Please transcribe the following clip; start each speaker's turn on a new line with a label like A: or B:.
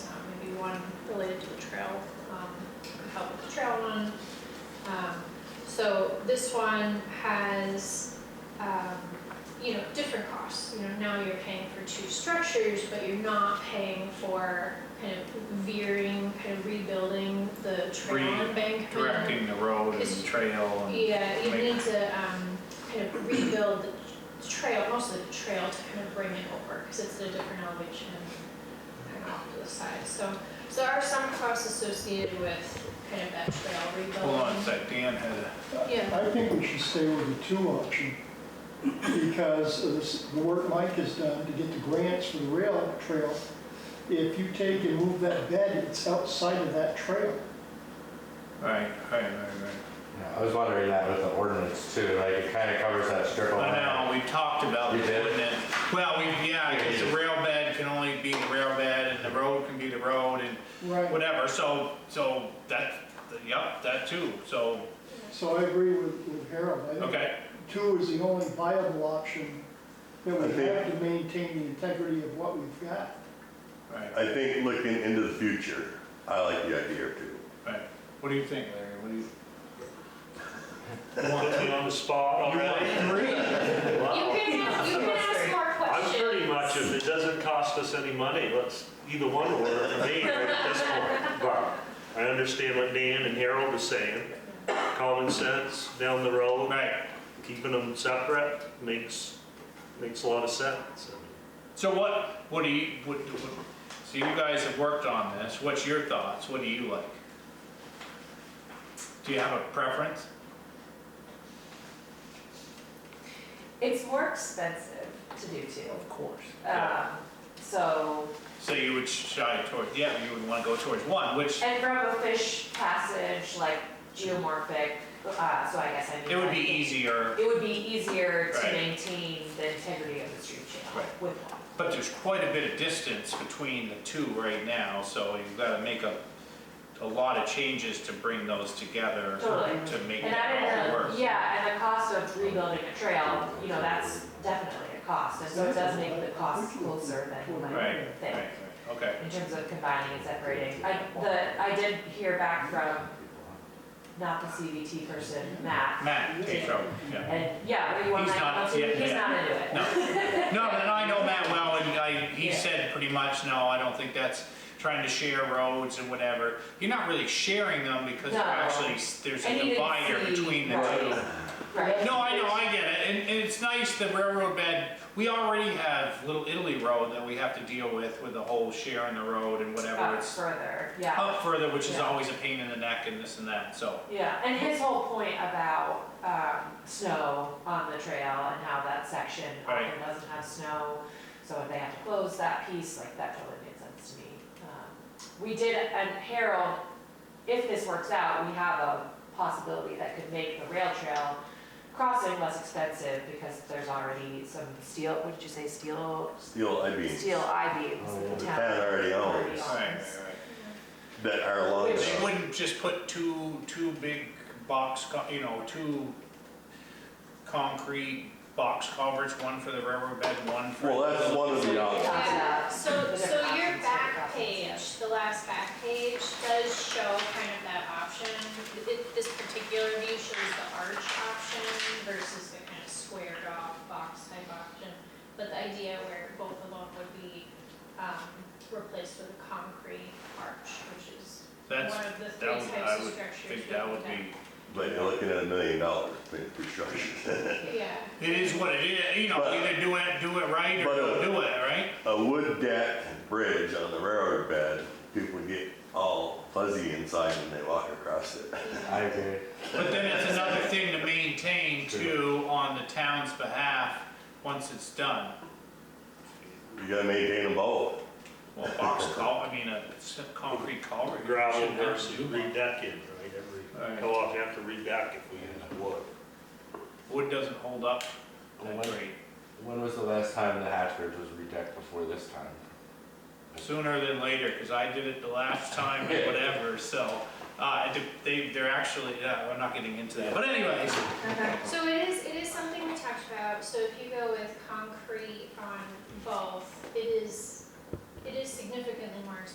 A: Um, Um, so this one has, um, you know, different costs. You know, now you're paying for two structures, but you're not paying for kind of veering, kind of rebuilding the trail
B: Re-
A: embankment.
B: directing the road
A: It's-
B: and trail and.
A: Yeah, uh, you
B: make-
A: need to, um, kind of rebuild the trail, most of the trail to kind of bring it over, because it's at a different elevation and kind of off to the side, so. So there are some costs associated with kind of that trail rebuilding.
B: Hold on a sec, Dan had a.
A: Yeah.
C: I think we should stay with the two option because of this- the work Mike has done to get the grants for the rail trail. If you take and move that bed, it's outside of that trail.
B: Right, right, right, right.
D: Yeah, I was wondering that with the ordinance too, like it kind of covers that strip of
B: I
D: land.
B: know, we talked about
D: You
B: this,
D: did?
B: wouldn't it? Well, we, yeah, because the rail bed can only be the rail bed, and the road can be the road, and
C: Right.
B: whatever, so, so that, yep, that too, so,
C: So I agree with with Harold. I think
B: okay.
C: Two is the only viable option that
E: I
C: we
E: think-
C: have to maintain the integrity of what we've got.
B: Right,
E: I think looking into the future, I like the idea too.
B: right. What do you think, Larry? What do you?
F: Want me on the spot already?
A: You
F: Wow.
A: can ask, you can ask more
F: I'm
A: questions.
F: pretty much, if it doesn't cost us any money, let's, either one order for me right at this point. But I understand what Dan and Harold are saying. Common sense down the road,
B: Right,
F: keeping them separate makes, makes a lot of sense.
B: so what, what do you, what, what, so you guys have worked on this, what's your thoughts, what do you like? Do you have a preference?
G: It's more expensive to do too.
B: Of course.
G: Um, so,
B: So you would shy toward, yeah, you would want to go towards one, which
G: and from a fish passage, like geomorphic, uh, so I guess I mean.
B: it would be
G: like,
B: easier,
G: It would be easier to
B: Right.
G: maintain the integrity of the stream channel
B: Right.
G: with one.
B: but there's quite a bit of distance between the two right now, so you've got to make a, a lot of changes to bring those together
G: Totally.
B: to make
G: And I
B: that all
G: didn't,
B: work.
G: know- yeah, and the cost of rebuilding a trail, you know, that's definitely a cost, and so it does make the cost closer than you
B: Right,
G: might
B: right,
G: think.
B: right, okay.
G: in terms of combining and separating. I, the, I did hear back from, not the CVT person, Matt,
B: Matt, Pedro, yeah.
G: and yeah, were you on
B: He's
G: that?
B: not- yeah,
G: He's
B: yeah.
G: not into it.
B: No, no, and I know Matt well, and I, he
G: Yeah.
B: said pretty much, no, I don't think that's trying to share roads and whatever. You're not really sharing them because they're
G: No.
B: actually, there's
G: And
B: a
G: he didn't
B: divider
G: see-
B: between the
G: right.
B: two.
G: Right.
B: No, I know, I get it, and, and it's nice, the railroad bed, we already have Little Italy Road that we have to deal with, with the whole sharing the road and whatever,
G: Up
B: it's Oh,
G: further, yeah.
B: up further, which is
G: Yeah.
B: always a pain in the neck and this and that, so.
G: Yeah, and his whole point about, um, snow on the trail and how that section often
B: Right.
G: doesn't have snow. So if they have to close that piece, like that totally made sense to me. Um, We did, and Harold, if this works out, we have a possibility that could make the rail trail crossing less expensive because there's already some steel, what did you say, steel?
E: Steel, I mean,
G: Steel I beams
D: Oh, yeah.
G: that
E: The
G: the town.
E: town already owns.
B: Alright, alright.
E: that are along
G: Which
B: They
E: the,
B: wouldn't just put two, two big box, co- you know, two concrete box culverts, one for the railroad bed, one for.
E: well, that's one of the
A: Oh.
E: options.
A: Yeah,
G: Concept.
A: so, so your
G: Different options,
A: back
G: different
A: page,
G: options.
A: the last back page does show kind of that option. It- This particular view shows the arch option versus the kind of squared off box type option. But the idea where both of them would be, um, replaced with a concrete arch, which is one
B: That's,
A: of the
B: that
A: three
B: would, I
A: types of
B: would
A: structures.
B: think
A: we
B: that
A: looked
B: would be.
E: but you're looking at a million dollars for infrastructure.
A: at. Yeah.
B: It is what it is, you know,
E: But-
B: either do it, do it right or
E: But, uh,
B: don't do it, right?
E: A wood deck bridge on the railroad bed, people get all fuzzy inside when they walk across it.
D: I agree.
B: But then it's another thing to maintain too on the town's behalf, once it's done.
E: You gotta maintain them both.
B: Well, box cul, I mean, a s- concrete culvert. you
F: Gravel
B: shouldn't have to
F: versus
B: do one.
F: re-deck in, right? Every, how often you have to re-deck if we use wood?
B: Wood doesn't hold up that
D: Wood.
B: great.
D: When was the last time the Hatchbridge was redecked before this time?
B: sooner than later, because I did it the last time and whatever, so, uh, it de- they, they're actually, yeah, we're not getting into that, but anyways,
A: So it is, it is something we talked about, so if you go with concrete on both, it is, it is significantly more expensive